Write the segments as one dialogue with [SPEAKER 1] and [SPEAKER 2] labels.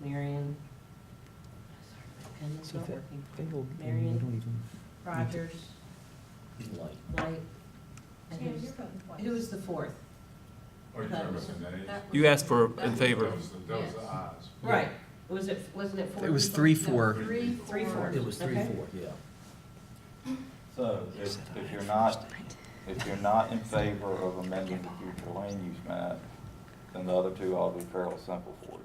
[SPEAKER 1] Marion. Sorry, my pen is
[SPEAKER 2] So
[SPEAKER 1] not
[SPEAKER 2] that-
[SPEAKER 1] working.
[SPEAKER 2] They will, they
[SPEAKER 1] Marion.
[SPEAKER 2] don't even,
[SPEAKER 1] Rogers,
[SPEAKER 3] Light.
[SPEAKER 1] White, and
[SPEAKER 4] Tam,
[SPEAKER 1] who's,
[SPEAKER 4] you're voting twice.
[SPEAKER 1] who was the fourth?
[SPEAKER 5] Or you
[SPEAKER 1] That
[SPEAKER 5] remember
[SPEAKER 1] was-
[SPEAKER 5] the names?
[SPEAKER 4] That
[SPEAKER 6] You
[SPEAKER 4] was-
[SPEAKER 6] asked for
[SPEAKER 4] that
[SPEAKER 6] in
[SPEAKER 4] was-
[SPEAKER 6] favor.
[SPEAKER 5] That was the, that was the
[SPEAKER 4] Yes.
[SPEAKER 5] ayes.
[SPEAKER 1] Right, was it, wasn't it four?
[SPEAKER 2] It was
[SPEAKER 1] people?
[SPEAKER 2] three,
[SPEAKER 1] No,
[SPEAKER 2] four.
[SPEAKER 1] Three, three, four.
[SPEAKER 3] It was three,
[SPEAKER 1] Okay.
[SPEAKER 3] four, yeah.
[SPEAKER 7] So if, if you're not, if you're not in favor of amending the future land use map, then the other two ought to be fairly simple for you.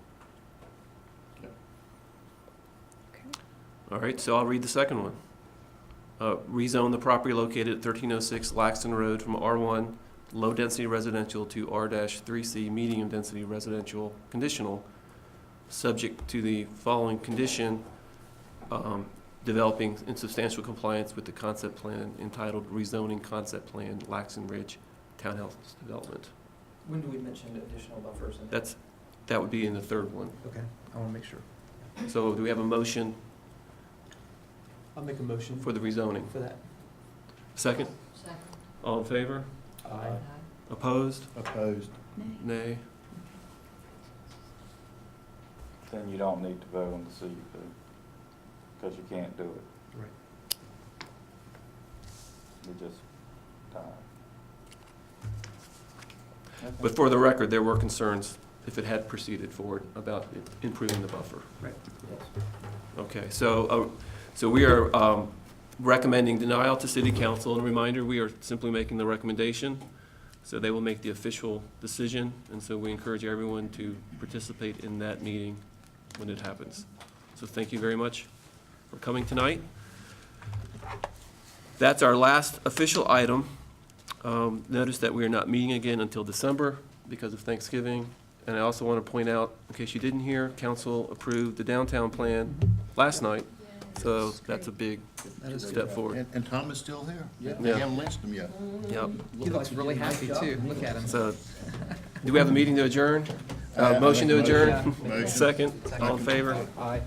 [SPEAKER 6] All right, so I'll read the second one. Uh, Rezone the property located at 1306 Laxton Road from R1 Low Density Residential to R-3C Medium Density Residential Conditional, subject to the following condition, um, developing in substantial compliance with the concept plan entitled Rezoning Concept Plan Laxton Ridge Townhouse Development.
[SPEAKER 3] When do we mention additional buffers? in-
[SPEAKER 6] That's, that would be in the third one.
[SPEAKER 2] okay, I want to make sure.
[SPEAKER 6] So do we have a motion
[SPEAKER 2] I'll make a motion
[SPEAKER 6] for the rezoning?
[SPEAKER 2] for that.
[SPEAKER 6] Second?
[SPEAKER 1] Second.
[SPEAKER 6] All in favor?
[SPEAKER 7] Uh,
[SPEAKER 2] Aye.
[SPEAKER 6] Opposed?
[SPEAKER 3] Opposed.
[SPEAKER 6] Nay.
[SPEAKER 7] Then you don't need to vote on the CUP, because you can't do it.
[SPEAKER 2] Right.
[SPEAKER 7] You just die.
[SPEAKER 6] But for the record, there were concerns, if it had proceeded forward, about improving the buffer. Okay, so, uh, so we are um, recommending denial to city council. And a reminder, we are simply making the recommendation, so they will make the official decision. And so we encourage everyone to participate in that meeting when it happens. So thank you very much for coming tonight. That's our last official item. Um, Notice that we are not meeting again until December because of Thanksgiving. And I also want to point out, in case you didn't hear, council approved the downtown plan last night. So that's a big
[SPEAKER 8] That is
[SPEAKER 6] step forward.
[SPEAKER 8] And, and Tom is still here.
[SPEAKER 3] Yeah.
[SPEAKER 8] They haven't lynched him yet.
[SPEAKER 6] Yep.
[SPEAKER 2] He looks really happy too, look at him.
[SPEAKER 6] So, do we have a meeting to adjourn?
[SPEAKER 8] I
[SPEAKER 6] Uh,
[SPEAKER 8] have a
[SPEAKER 6] Motion to
[SPEAKER 8] motion.
[SPEAKER 6] adjourn?
[SPEAKER 8] Motion.
[SPEAKER 6] Second, all in favor?
[SPEAKER 2] Aye.